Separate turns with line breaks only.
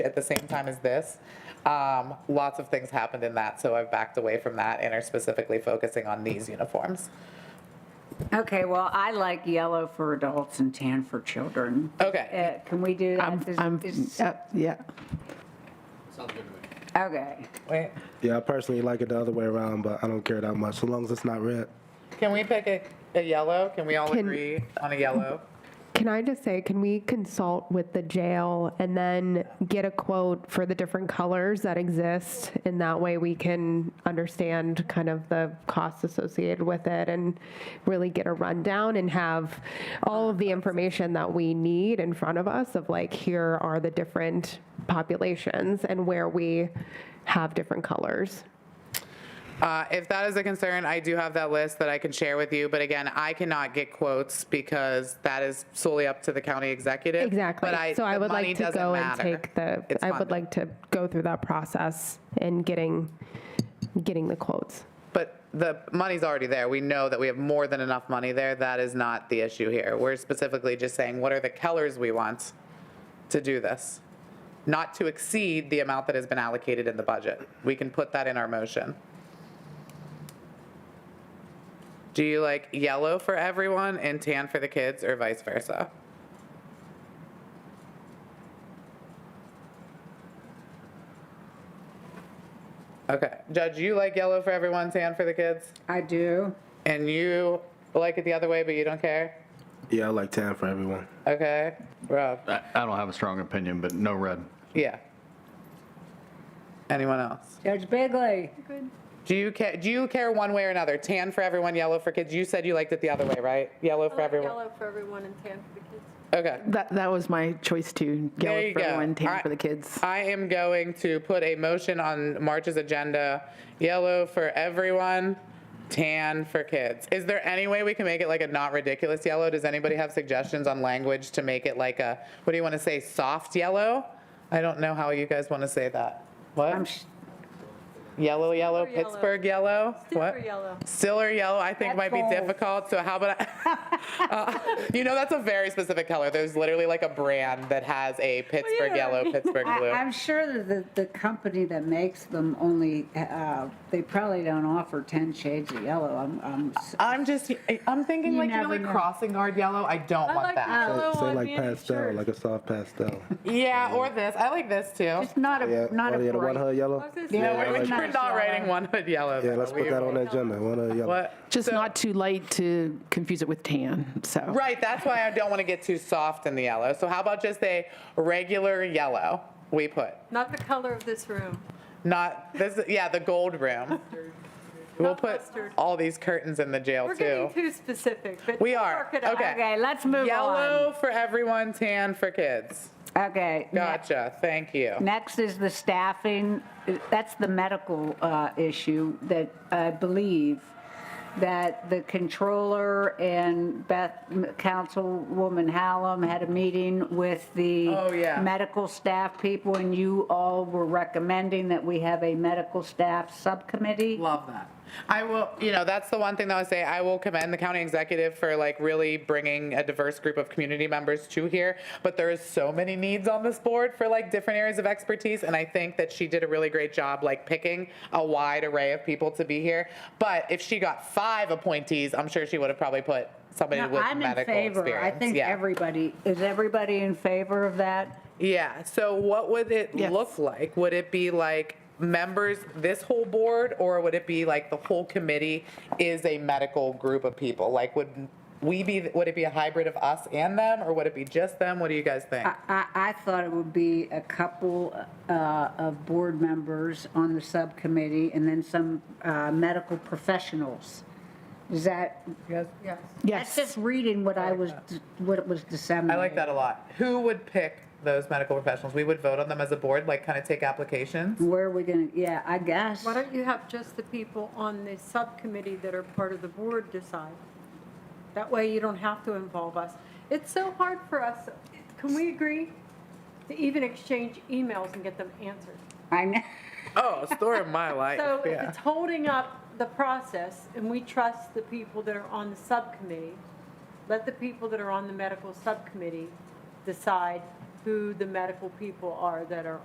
at the same time as this. Um, Lots of things happened in that, so I've backed away from that and are specifically focusing on these uniforms.
Okay, well, I like yellow for adults and tan for children.
Okay.
Uh, Can we do that?
I'm,
Is-
I'm,
is-
yeah, yeah.
Okay,
Wait,
Yeah, I personally like it the other way around, but I don't care that much, so long as it's not red.
can we pick a, a yellow? Can we all
Can-
agree on a yellow?
Can I just say, can we consult with the jail and then get a quote for the different colors that exist? And that way we can understand kind of the costs associated with it and really get a rundown and have all of the information that we need in front of us of like, here are the different populations and where we have different colors.
Uh, If that is a concern, I do have that list that I can share with you, but again, I cannot get quotes because that is solely up to the county executive.
Exactly.
But I,
so I
the
would
money
like to
doesn't
go and
matter.
take the.
It's
I would
funded.
like to go through that process and getting getting the quotes.
But the money's already there. We know that we have more than enough money there. That is not the issue here. We're specifically just saying, what are the colors we want to do this? Not to exceed the amount that has been allocated in the budget. We can put that in our motion. Do you like yellow for everyone and tan for the kids or vice versa? Okay. Judge, you like yellow for everyone, tan for the kids?
I do.
And you like it the other way, but you don't care?
Yeah, I like tan for everyone.
Okay. Rob?
I I don't have a strong opinion, but no red.
Yeah. Anyone else?
Judge Bigley,
Do you care? Do you care one way or another? Tan for everyone, yellow for kids. You said you liked it the other way, right? Yellow for
I like
everyone.
Yellow for everyone and tan for the kids.
Okay.
That, that was my choice too.
There
Yellow
you
for
go.
everyone, tan
I-
for the kids.
I am going to put a motion on March's agenda: yellow for everyone, tan for kids. Is there any way we can make it like a not ridiculous yellow? Does anybody have suggestions on language to make it like a what do you want to say? Soft yellow? I don't know how you guys want to say that. What?
I'm, sh-
Yellow, yellow,
Silver yellow.
Pittsburgh yellow.
Silver
What?
yellow.
Silver yellow, I think might
That's
be
bold.
difficult. So how about, I, Uh, you know, that's a very specific color. There's literally like a brand that has a Pittsburgh
yeah.
yellow, Pittsburgh
I-
blue.
I'm sure that the, the company that makes them only, uh, they probably don't offer 10 shades of yellow. I'm, I'm, s-
I'm just, I'm thinking
You
like, you know,
never
like
know.
crossing guard yellow. I don't
I
want
like
that.
yellow
Say
on
like
Mandy's
pastel,
shirt.
like a soft pastel.
Yeah, or this. I like this too.
it's not
Yeah,
a, not a
oh, yeah, the one hood
bright.
I
yellow.
was gonna say,
Yeah,
We're-
I
we're
like
not
that. Nice
writing
yellow.
one hood yellow.
Yeah, let's put that on the agenda. One hood yellow.
What?
Just
So-
not too light to confuse it with tan, so.
Right, that's why I don't want to get too soft in the yellow. So how about just a regular yellow we put?
Not the color of this room.
Not this. Yeah, the gold room. We'll
Not
put
mustard.
all these curtains in the jail
We're
too.
getting too specific, but.
We
we'll
are,
work it out.
okay.
Okay, let's move on.
Yellow for everyone, tan for kids.
Okay. ne-
Gotcha. Thank you.
Next is the staffing. That's the medical uh, issue that I believe that the controller and Beth, Councilwoman Hallam had a meeting with the
Oh, yeah.
medical staff people, and you all were recommending that we have a medical staff subcommittee.
Love that. I will, you know, that's the one thing that I say, I will commend the county executive for like really bringing a diverse group of community members to here. But there is so many needs on this board for like different areas of expertise. And I think that she did a really great job like picking a wide array of people to be here. But if she got five appointees, I'm sure she would have probably put somebody
Now,
with
I'm in
medical
favor. I
experience.
think
Yeah.
everybody, is everybody in favor of that?
Yeah, so what would it
Yes.
look like? Would it be like members, this whole board, or would it be like the whole committee is a medical group of people? Like, would we be, would it be a hybrid of us and them, or would it be just them? What do you guys think?
I, I thought it would be a couple uh, of board members on the subcommittee and then some uh, medical professionals. Is that,
Yes.
that's just reading what I was, what it was
I
disseminated.
like that a lot. Who would pick those medical professionals? We would vote on them as a board, like kind of take applications?
Where are we gonna, yeah, I guess.
Why don't you have just the people on the subcommittee that are part of the board decide? That way you don't have to involve us. It's so hard for us, can we agree to even exchange emails and get them answered?
I know,
Oh, story of my life,
So if
yeah.
it's holding up the process, and we trust the people that are on the subcommittee, let the people that are on the medical subcommittee decide who the medical people are that are